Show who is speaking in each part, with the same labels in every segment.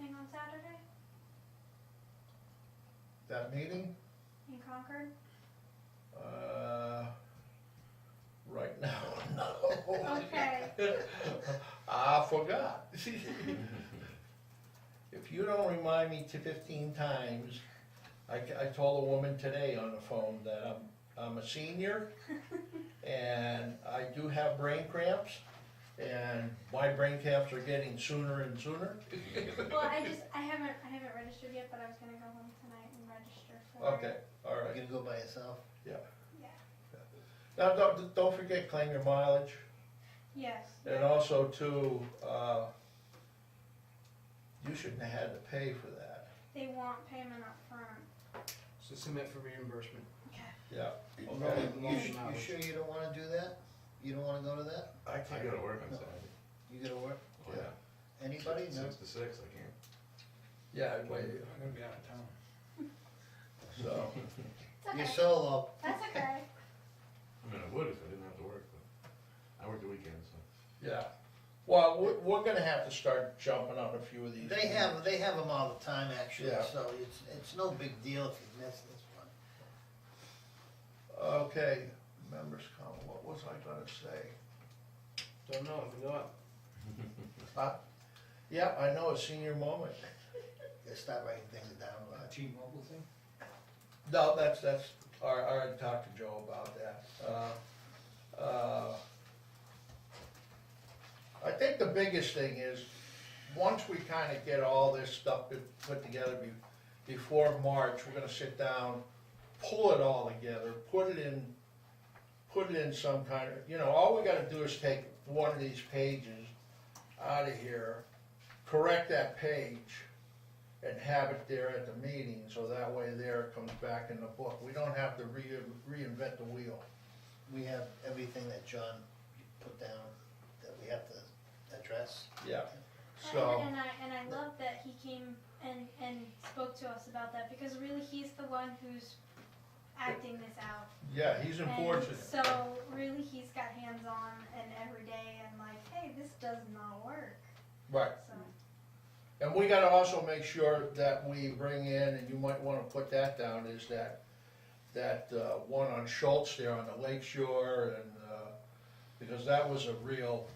Speaker 1: on Saturday
Speaker 2: That meeting,
Speaker 1: in Concord?
Speaker 2: uh, right now, no.
Speaker 1: Okay,
Speaker 2: I forgot. If you don't remind me to fifteen times, I, ca- I told a woman today on the phone that I'm, I'm a senior and I do have brain cramps and my brain cramps are getting sooner and sooner.
Speaker 1: well, I just, I haven't, I haven't registered yet, but I was gonna go home tonight and register for it.
Speaker 2: Okay, all
Speaker 3: Are
Speaker 2: right.
Speaker 3: you gonna go by yourself?
Speaker 1: Yeah,
Speaker 2: Now, don't, don't forget claim your mileage.
Speaker 1: yes.
Speaker 2: And also too, uh, you shouldn't have had to pay for that.
Speaker 1: They want payment up front.
Speaker 4: So submit for reimbursement.
Speaker 2: Yeah.
Speaker 3: You,
Speaker 2: Okay.
Speaker 3: you su- you sure you don't wanna do that? You don't wanna go to that?
Speaker 2: I
Speaker 5: I
Speaker 2: can't,
Speaker 5: gotta work on Saturday.
Speaker 3: You gonna work?
Speaker 5: Oh, yeah.
Speaker 3: Anybody?
Speaker 5: Six
Speaker 3: No?
Speaker 5: six to six, I can't.
Speaker 2: yeah, wait,
Speaker 4: I'm gonna be out of town.
Speaker 2: so,
Speaker 1: It's okay.
Speaker 3: You're solo.
Speaker 1: That's okay.
Speaker 5: I mean, I would if I didn't have to work, but I work the weekends, so.
Speaker 2: yeah. Well, we're, we're gonna have to start jumping on a few of these.
Speaker 3: They have, they have them all the time actually,
Speaker 2: Yeah.
Speaker 3: so it's, it's no big deal if you miss this one.
Speaker 2: Okay, members comment, what was I gonna say?
Speaker 4: Don't know, I forgot.
Speaker 2: Yeah, I know, a senior moment.
Speaker 3: You start writing things down, Rod.
Speaker 4: T-Mobile thing?
Speaker 2: No, that's, that's, I, I already talked to Joe about that. Uh, uh, I think the biggest thing is, once we kinda get all this stuff put- put together be- before March, we're gonna sit down, pull it all together, put it in, put it in some kind of, you know, all we gotta do is take one of these pages out of here, correct that page, and have it there at the meeting, so that way there it comes back in the book. We don't have to re, reinvent the wheel.
Speaker 3: We have everything that John put down that we have to address.
Speaker 2: Yeah. So,
Speaker 1: And I, and I love that he came and, and spoke to us about that, because really he's the one who's acting this out.
Speaker 2: yeah, he's
Speaker 1: And
Speaker 2: unfortunate.
Speaker 1: So really, he's got hands on and every day, and like, hey, this does not work.
Speaker 2: Right,
Speaker 1: So
Speaker 2: and we gotta also make sure that we bring in, and you might wanna put that down, is that, that, uh, one on Schultz there on the lake shore and, uh, because that was a real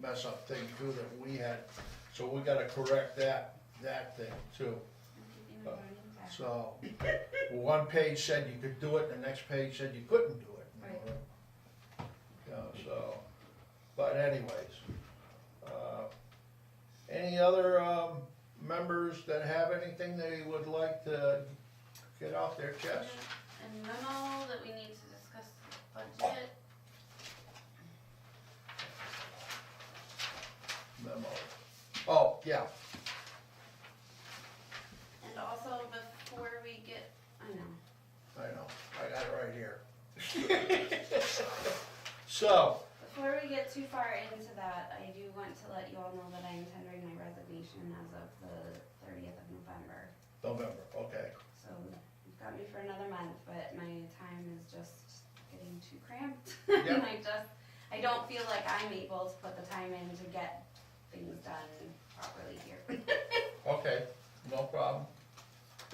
Speaker 2: mess up thing too that we had. So we gotta correct that, that thing too. So, one page said you could do it, and the next page said you couldn't do it.
Speaker 6: Right.
Speaker 2: Yeah, so, but anyways, uh, any other, um, members that have anything they would like to get off their chest?
Speaker 6: And memo that we need to discuss the budget.
Speaker 2: Memo. Oh, yeah,
Speaker 6: And also before we get, I know,
Speaker 2: I know, I got it right here. So,
Speaker 6: before we get too far into that, I do want to let you all know that I am tendering my resignation as of the thirtieth of November.
Speaker 2: November, okay,
Speaker 6: So you've got me for another month, but my time is just getting too cramped.
Speaker 2: Yeah.
Speaker 6: And I just, I don't feel like I'm able to put the time in to get things done properly here.
Speaker 2: okay, no problem.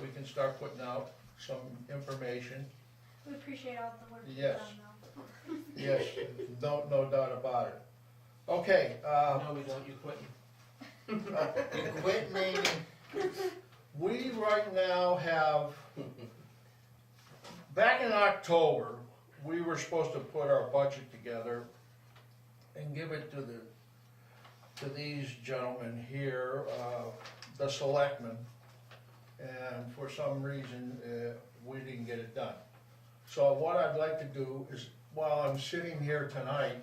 Speaker 2: We can start putting out some information.
Speaker 1: we appreciate all the work you've
Speaker 2: Yes.
Speaker 1: done, though.
Speaker 2: Yes, no, no doubt about it. Okay, uh,
Speaker 4: No, we don't, you quit.
Speaker 3: You quit naming,
Speaker 2: we right now have, back in October, we were supposed to put our budget together and give it to the, to these gentlemen here, uh, the selectmen. And for some reason, uh, we didn't get it done. So what I'd like to do is, while I'm sitting here tonight,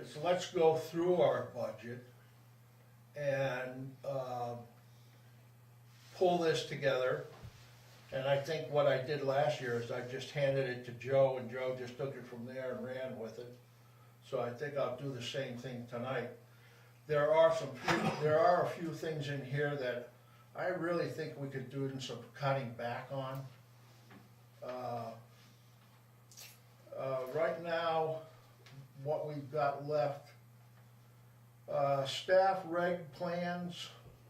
Speaker 2: is let's go through our budget and, uh, pull this together. And I think what I did last year is I just handed it to Joe and Joe just took it from there and ran with it. So I think I'll do the same thing tonight. There are some, few- there are a few things in here that I really think we could do some cutting back on. Uh, uh, right now, what we've got left, uh, staff reg plans,